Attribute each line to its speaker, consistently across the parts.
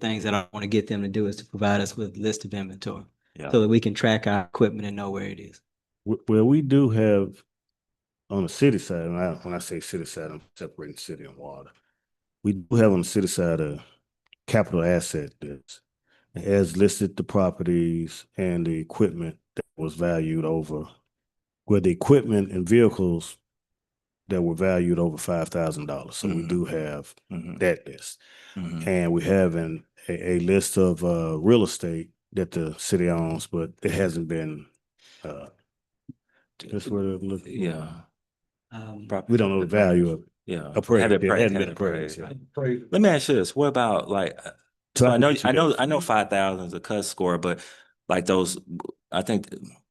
Speaker 1: things that I want to get them to do is to provide us with list of inventory.
Speaker 2: Yeah.
Speaker 1: So that we can track our equipment and know where it is.
Speaker 3: W- Well, we do have on the city side, and I, when I say city side, I'm separating city and water. We do have on the city side a capital asset that's it has listed the properties and the equipment that was valued over, where the equipment and vehicles that were valued over five thousand dollars. So we
Speaker 2: Mhm.
Speaker 3: do have
Speaker 2: Mhm,
Speaker 3: that list.
Speaker 2: mhm.
Speaker 3: And we have an, a, a list of, uh, real estate that the city owns, but it hasn't been, uh, that's what it look.
Speaker 2: Yeah.
Speaker 1: Um,
Speaker 2: Property
Speaker 3: We don't know the value of it.
Speaker 2: Yeah.
Speaker 3: appraised,
Speaker 2: Have it
Speaker 3: yeah,
Speaker 2: pra-
Speaker 3: hadn't
Speaker 2: have
Speaker 3: been
Speaker 2: it
Speaker 3: appraised,
Speaker 2: appraised.
Speaker 3: yeah.
Speaker 2: Let me ask you this, what about like, uh, so I know, I know, I know five thousand is a cut score, but like those, I think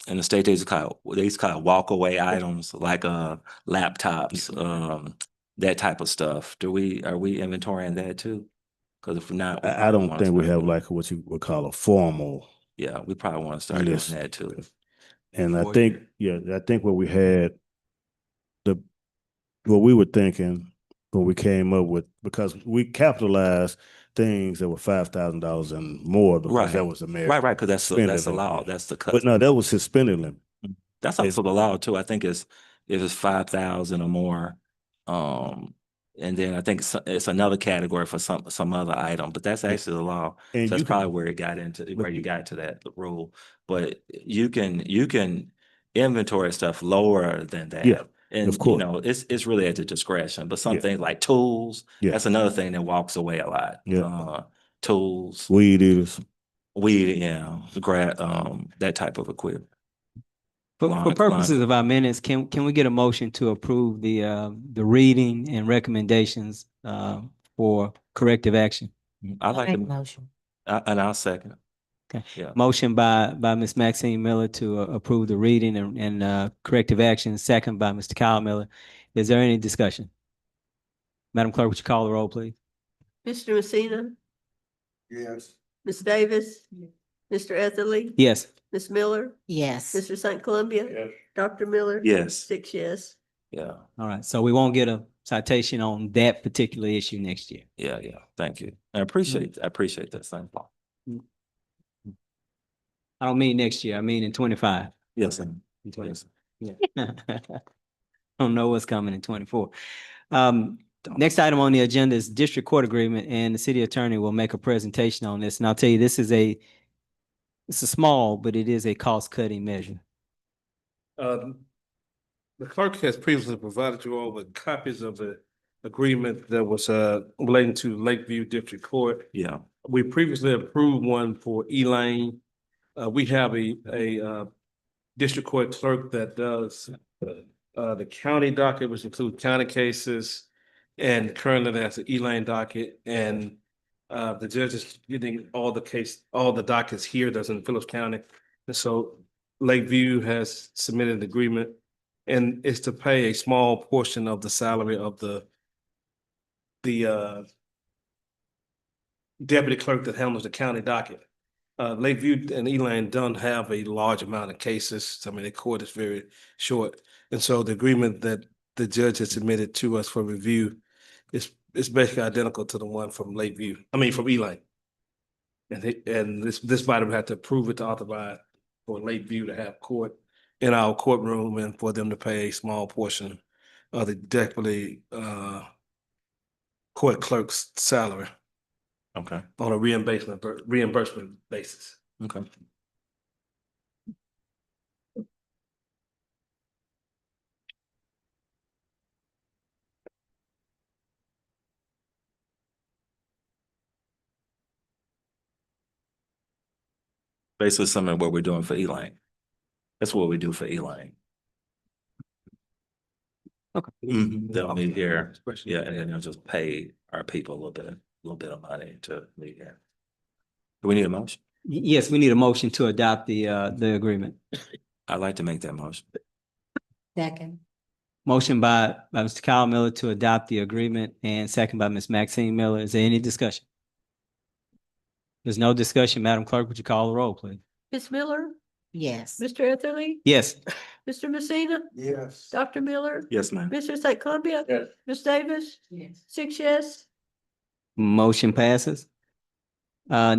Speaker 2: in the state, they's called, they's called walkaway items, like, uh, laptops, um, that type of stuff. Do we, are we inventorying that too? Cause if not. we
Speaker 3: I, I don't
Speaker 2: wanna
Speaker 3: think we
Speaker 2: start
Speaker 3: have
Speaker 2: doing-
Speaker 3: like what you would call a formal.
Speaker 2: Yeah, we probably wanna start doing
Speaker 3: list.
Speaker 2: that too.
Speaker 3: And I
Speaker 1: For
Speaker 3: think, yeah, I think what we had, the, what we were thinking, when we came up with, because we capitalized things that were five thousand dollars and more, because that
Speaker 2: Right.
Speaker 3: was the mayor.
Speaker 2: Right, right, cause that's, the-
Speaker 3: Spend
Speaker 2: that's
Speaker 3: it.
Speaker 2: allowed, that's the cut.
Speaker 3: But no, that was suspended limit.
Speaker 2: That's
Speaker 3: It's-
Speaker 2: also the law too. I think it's, if it's five thousand or more, um, and then I think it's, it's another category for some, some other item, but that's actually the law. So
Speaker 3: And
Speaker 2: that's
Speaker 3: you
Speaker 2: probably
Speaker 3: can,
Speaker 2: where it got into,
Speaker 3: but
Speaker 2: where you
Speaker 3: you-
Speaker 2: got to that rule. But you can, you can inventory stuff lower than that.
Speaker 3: Yeah,
Speaker 2: And, you
Speaker 3: course.
Speaker 2: know, it's, it's really at the discretion, but some
Speaker 3: Yeah.
Speaker 2: things like tools,
Speaker 3: Yeah.
Speaker 2: that's another thing that walks away a lot.
Speaker 3: Yeah.
Speaker 2: Uh, Tools,
Speaker 3: weed eaters,
Speaker 2: weed, yeah, grad, um, that type of equipment.
Speaker 1: For,
Speaker 2: Line-
Speaker 1: for
Speaker 2: line.
Speaker 1: purposes of our minutes, can, can we get a motion to approve the, uh, the reading and recommendations, uh, for corrective action?
Speaker 2: I like
Speaker 4: Make
Speaker 2: them.
Speaker 4: motion.
Speaker 2: I- And I'll second. it.
Speaker 1: Motion by, by Ms. Maxine Miller to uh, approve the reading and, and, uh, corrective action, second by Mr. Kyle Miller. Is there any discussion? Madam Clerk, would you call the roll, please?
Speaker 5: Mr. Messina,
Speaker 6: Yes.
Speaker 5: Ms. Davis, Mr. Etherly,
Speaker 1: Yes.
Speaker 5: Ms. Miller,
Speaker 4: Yes,
Speaker 5: Mr. St. Columbia,
Speaker 6: Yes.
Speaker 5: Dr. Miller.
Speaker 2: Yes,
Speaker 5: Six yes.
Speaker 2: yeah,
Speaker 1: All right. So we won't get a citation on that particular issue next year.
Speaker 2: yeah, yeah. Thank you. I appreciate, I appreciate that. Thank you.
Speaker 1: I don't mean next year. I mean in twenty-five.
Speaker 2: Yes, and-
Speaker 1: In
Speaker 2: yes.
Speaker 1: Don't know what's coming in twenty-four. Um, next item on the agenda is district court agreement and the city attorney will make a presentation on this. And I'll tell you, this is a, it's a small, but it is a cost-cutting measure.
Speaker 6: Um, the clerk has previously provided you all with copies of the agreement that was, uh, relating to Lakeview District Court.
Speaker 2: Yeah,
Speaker 6: We previously approved one for Elaine. Uh, we have a, a, uh, district court clerk that does, uh, the county docket, which includes county cases. And currently that's the Elaine docket and, uh, the judge is getting all the case, all the dockets here that's in Phillips County. And so Lakeview has submitted an agreement and is to pay a small portion of the salary of the the uh deputy clerk that handles the county docket. Uh, Lakeview and Elan don't have a large amount of cases. I mean, the court is very short. And so the agreement that the judge has submitted to us for review is is basically identical to the one from Lakeview, I mean, from Elan. And they, and this this body would have to approve it to authorize for Lakeview to have court in our courtroom and for them to pay a small portion of the deputy uh court clerk's salary
Speaker 2: okay,
Speaker 6: on a reimbursement reimbursement basis.
Speaker 2: okay. Basically, some of what we're doing for Elaine. That's what we do for Elaine.
Speaker 1: Okay.
Speaker 2: Mhm, They'll meet here.
Speaker 6: Expression.
Speaker 2: Yeah, and then they'll just pay our people a little bit, a little bit of money to meet here. Do we need a motion?
Speaker 1: Y- Yes, we need a motion to adopt the, uh, the agreement.
Speaker 2: I'd like to make that motion.
Speaker 4: second.
Speaker 1: Motion by, by Mr. Kyle Miller to adopt the agreement and second by Ms. Maxine Miller. Is there any discussion? There's no discussion. Madam Clerk, would you call the roll, please?
Speaker 5: Ms. Miller,
Speaker 4: Yes,
Speaker 5: Mr. Etherly,
Speaker 1: Yes.
Speaker 5: Mr. Messina,
Speaker 6: Yes.
Speaker 5: Dr. Miller,
Speaker 2: Yes, ma'am.
Speaker 5: Mr. St. Columbia,
Speaker 6: Yes.
Speaker 5: Ms. Davis,
Speaker 4: yes,
Speaker 5: six yes.
Speaker 1: Motion passes. Uh,